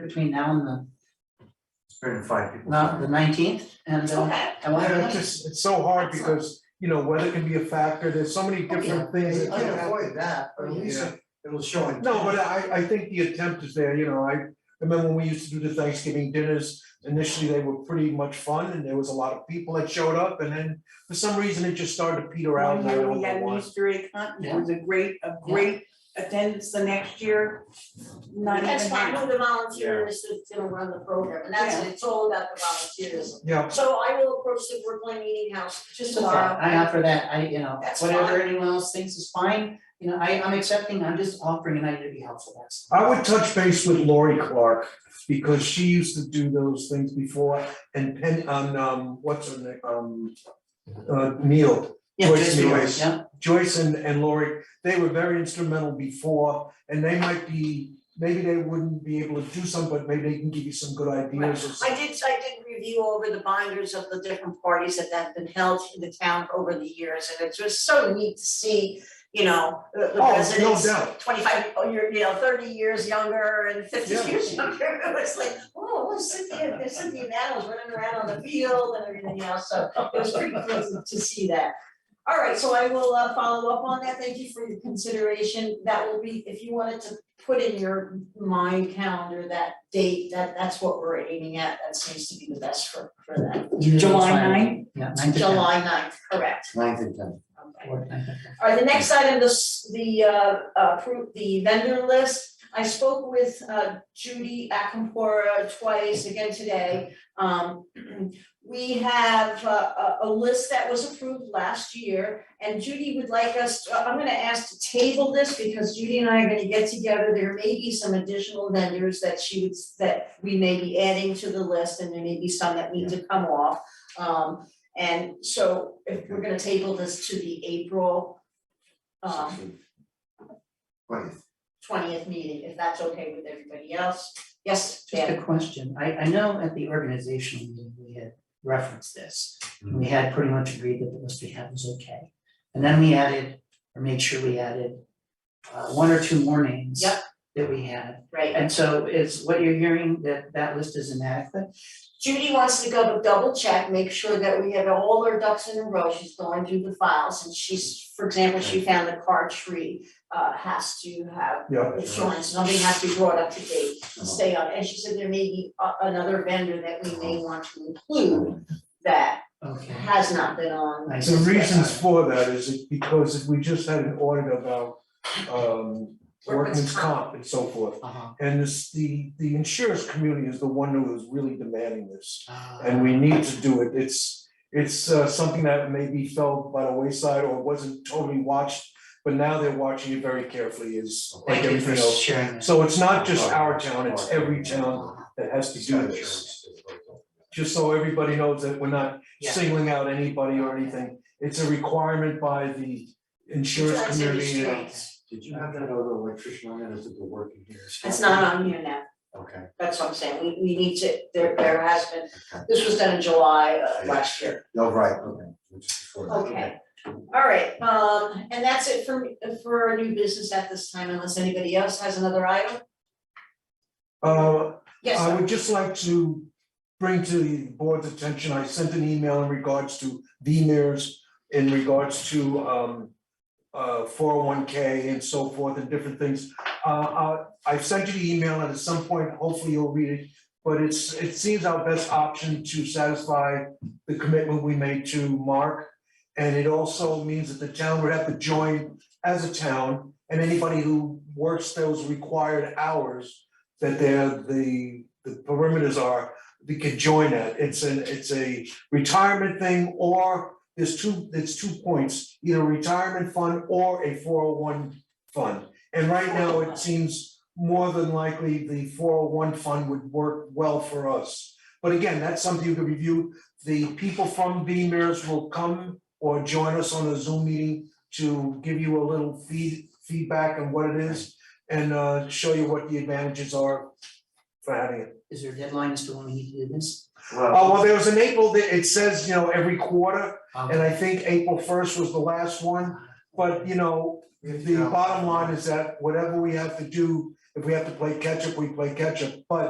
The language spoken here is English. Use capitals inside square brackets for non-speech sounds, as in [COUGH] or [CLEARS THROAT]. between now and the, Bring five people. not the nineteenth, and uh, Okay. I wonder Yeah, if it's just, it's Oh, so hard because, you know, weather can be a factor, there's so many different things You that can can happen. avoid that, but at least it- it'll show. intent. No, but uh, I, I think the attempt is there, you know, I remember when we used to do the Thanksgiving dinners, initially they were pretty much fun and there was a lot of people that showed up and then for some reason it just started to peter out One and I year don't we had know an why. Easter egg hunt, it was a great, a great attendance the next year, not even That's fine, half. who the volunteers that's gonna run the program, and that's, it's all about the volunteers. Yeah, So I will approach the Brookline Meeting House just Okay, tomorrow. I offer that, I, you know, That's whatever anyone else thinks is fine, you know, I, I'm accepting, I'm just offering an idea to be helpful, that's. I would touch base with Lori Clark because she used to do those things before and Penn, on, um, what's her name, um, uh, Neil. Yeah, Joyce just- Lewis. yeah, Joyce and and Lori, they were very instrumental before, and they might be, maybe they wouldn't be able to do some, but maybe they can give you some good ideas or I something. did, I did review over the binders of the different parties that have been held in the town over the years, and it's just so neat to see, you know, the the Oh, no residents. doubt, Twenty-five, oh, you're, you know, thirty years younger and fifty Yeah. years younger, [LAUGHS] it was like, oh, look, Cynthia, there's Cynthia Nettles running around on the field and everything else, so it was pretty pleasant to see that. All right, so I will uh follow up on that, thank you for your consideration, that will be, if you wanted to put in your mind calendar that date, that that's what we're aiming at, that seems to be the best for for that. usually July it's fine. 9? Yeah, nine to ten. July ninth, correct, Ninth and tenth. okay. Or nine to All right, the next item, this, the, uh, appro- the vendor list. I spoke with, uh, Judy Akampora twice again today. Um, [CLEARS THROAT] we have a, a, a list that was approved last year, and Judy would like us, to- I'm gonna ask to table this because Judy and I are gonna get together. There may be some additional vendors that she would, that we may be adding to the list, and there may be some that need to come off. Um, and so if we're gonna table this to the April Uh-huh. um Twentieth. twentieth meeting, if that's okay with everybody else. Yes, Just Dan, a question, I, I know at the organizational meeting, we had referenced this, and we had pretty much agreed that the list we had was okay. And then we added, or made sure we added, uh, one or two more names. Yep. That we had, right. and so is what you're hearing that that list is inadequate? Judy wants to go to double check, make sure that we have all our ducks in a row. She's going through the files and she's, for example, she found the card tree uh has to have yeah. insurance, something has to be brought up to date, stay on. And she said there may be a- another vendor that we may want to Hmm. include that Okay. has not been on. I The reasons for that is it- because we just had an audit about um workman's [LAUGHS] Workman's comp. comp and so forth. Uh-huh. And this, the the insurance community is the one who is really demanding this. Uh, and we need to do it, it's, it's uh, something that maybe fell by the wayside or wasn't totally watched, but now they're watching it very carefully is like Thank you for everything else. sharing that. So it's not just our town, it's every town that has to do this, just so everybody knows that we're not Yeah. singling out anybody or anything. It's a requirement by the insurance Insurance community and- industry. Did you have that other electrician on there that's been working here? It's not on here now. Okay. That's what I'm saying, we, we need to, there, there has been, this was done in July uh, last year. No, Oh, right, okay. Which is before. Okay, all right, um, and that's it for, me- for our new business at this time, unless anybody else has another item? Uh, Yes, I sir. would just like to bring to the board's attention, I sent an email in regards to VMers, in regards to um uh four oh one K and so forth and different things. Uh, uh, I've sent you the email and at some point, hopefully you'll read it, but it's, it seems our best option to satisfy the commitment we made to Mark. And it also means that the town would have to join as a town and anybody who works those required hours that they're the the perimeters are, we could join that. It's an, it's a retirement thing or there's two, there's two points, either retirement fund or a four oh one fund. And right now, it seems more than likely the four oh one fund would work well for us. But again, that's something you could review. The people from Beamers will come or join us on a Zoom meeting to give you a little feed feedback on what it is and uh show you what the advantages are for having it. Is there a deadline as to when we need to do this? Oh, Well, well, there was an April, that it says, you know, every quarter, Um, and I think April first was the last one. But, you know, the bottom line is that whatever we have to do, if we have to play catch up, we play catch up. But